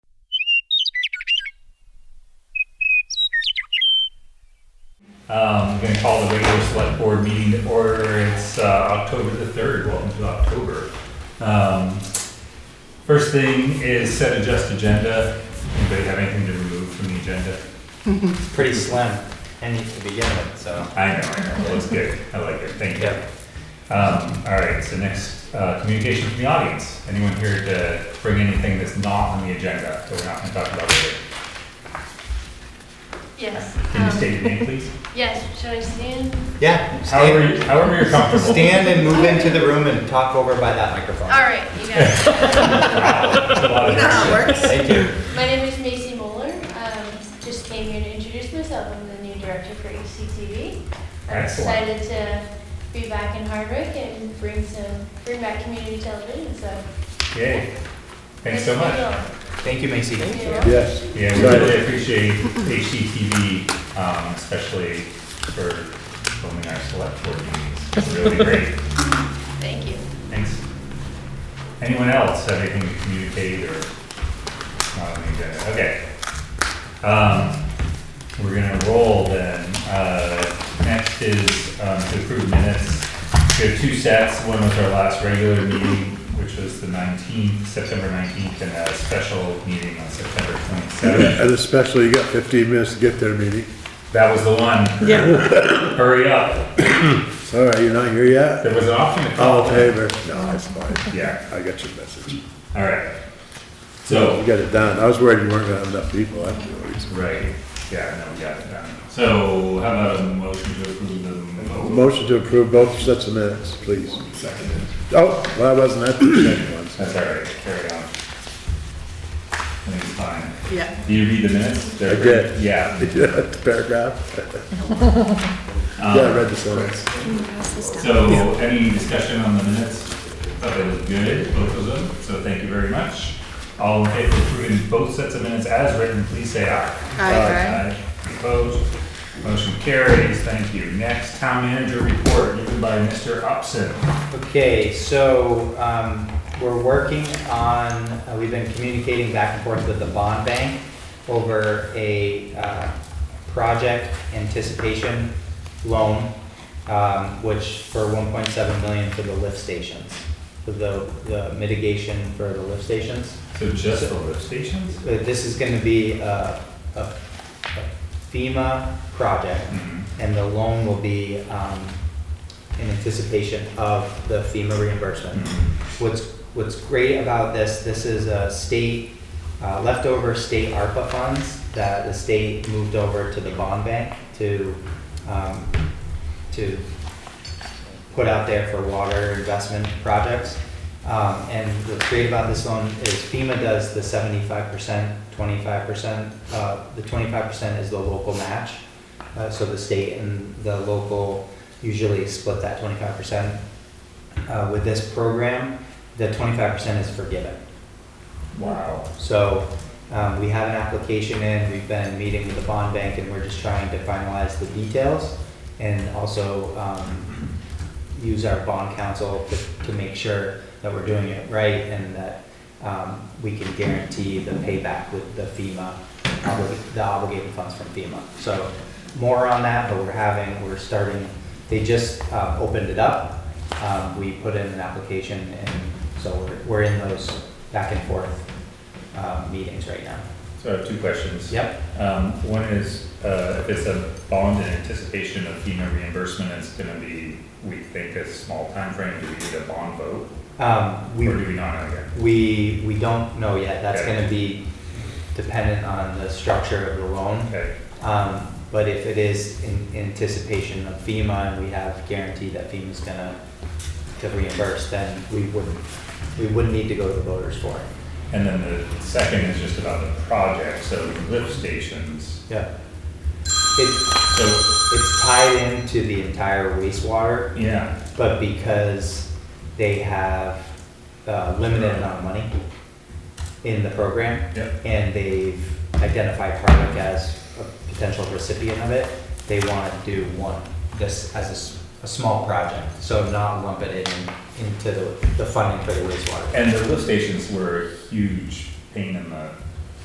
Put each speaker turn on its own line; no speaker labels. Um, I'm gonna call the regular select board meeting to order. It's, uh, October the third, welcome to October. Um, First thing is set adjust agenda. Anybody have anything to remove from the agenda?
It's pretty slim, and to begin with, so.
I know, I know, it looks good. I like it, thank you.
Yeah.
Um, all right, so next, uh, communication from the audience. Anyone here to bring anything that's not on the agenda that we're not gonna talk about later?
Yes.
Can you
um,
state your name, please?
Yes, should I stand?
Yeah.
However, you-
Stand,
however you're comfortable.
stand and move into the room and talk over by that microphone.
All right, you guys.
That's a lot of action.
Thank you.
My name is Macy Moeller. Um, Just came here to introduce myself. I'm the new director for E ECTV. I'm
Excellent.
excited to be back in Hardwick and bring some, bring back community television, so.
Yay. Thanks so
nice to
much.
Thank you, Macy.
meet you all. Yeah.
Yes.
Yeah, we really appreciate HGTV, um, especially for filming our select board meetings. It's really great.
Thank you.
Thanks. Anyone else have anything to communicate or? not on the agenda? Okay. Um, we're gonna roll then. Uh, next is, um, to approve minutes. We have two sets. One was our last regular meeting, which was the nineteenth, September nineteenth, and a special meeting on September twenty-seventh.
And especially, you got 15 minutes to get there, meeting.
That was the one.
Yeah,
Hurry up.
Sorry, you're not here yet?
There was an option to
All
call.
in favor? No, it's fine.
Yeah,
I got your message. You
all right. So,
got it done. I was worried you weren't gonna have enough people. That's the only reason.
Right, yeah, no, we got it done. So how about a motion to approve the mo-
Motion to approve both sets of minutes, please.
second?
Oh, well, I wasn't at the second one.
That's all right, carry on. I think it's fine.
yeah.
Do you read the minutes? They're-
I did.
Yeah.
The Paragraph. Yeah,
um,
I read the sentence.
So any discussion on the minutes? Thought it was good, both of them, so thank you very much. All in favor of approving both sets of minutes as written, please say aye.
Aye,
Opposed? Motion carries, thank you. Next, town manager report given by Mr. Upson.
Okay, so, um, we're working on, uh, we've been communicating back and forth with the bond bank over a, uh, project anticipation loan, um, which for one point seven million for the lift stations, for the, the mitigation for the lift stations.
So just the lift stations?
Uh, This is gonna be a a FEMA project,
Mhm.
and the loan will be um, in anticipation of the FEMA reimbursement.
hmm,
What's, what's great about this, this is a state, uh, leftover state ARPA funds that the state moved over to the bond bank to, um, to put out there for water investment projects. Um, and what's great about this loan is FEMA does the seventy-five percent, twenty-five percent. Uh, the twenty-five percent is the local match. Uh, so the state and the local usually split that twenty-five percent. Uh, with this program, the twenty-five percent is forgiven.
Wow.
So um, we have an application in, we've been meeting with the bond bank, and we're just trying to finalize the details and also um, use our bond counsel to- to make sure that we're doing it right and that um, we can guarantee the payback with the FEMA, obli- the obligated funds from FEMA. So more on that, but we're having, we're starting, they just uh, opened it up. Um, We put in an application, and so we're- we're in those back and forth um, meetings right now.
So I have two questions.
Yep.
Um, one is, uh, if it's a bond in anticipation of FEMA reimbursement, it's gonna be, we think, a small timeframe, do we need a bond vote?
Um,
Or
We,
do we not know yet?
we, we don't know yet. That's
Okay.
gonna be dependent on the structure of the loan.
Okay,
Um, But if it is in anticipation of FEMA and we have guarantee that FEMA's gonna to reimburse, then we wouldn't, we wouldn't need to go to the voters for it.
and then the second is just about the project, so lift stations,
Yeah. It,
so,
it's tied into the entire wastewater,
yeah,
but because they have uh, limited amount of money in the program,
yep,
and they've identified Hardwick as a potential recipient of it, they want to do one, this as a s- a, small project, so not lump it in, into the, the funding for the wastewater.
and the lift stations were a huge pain in the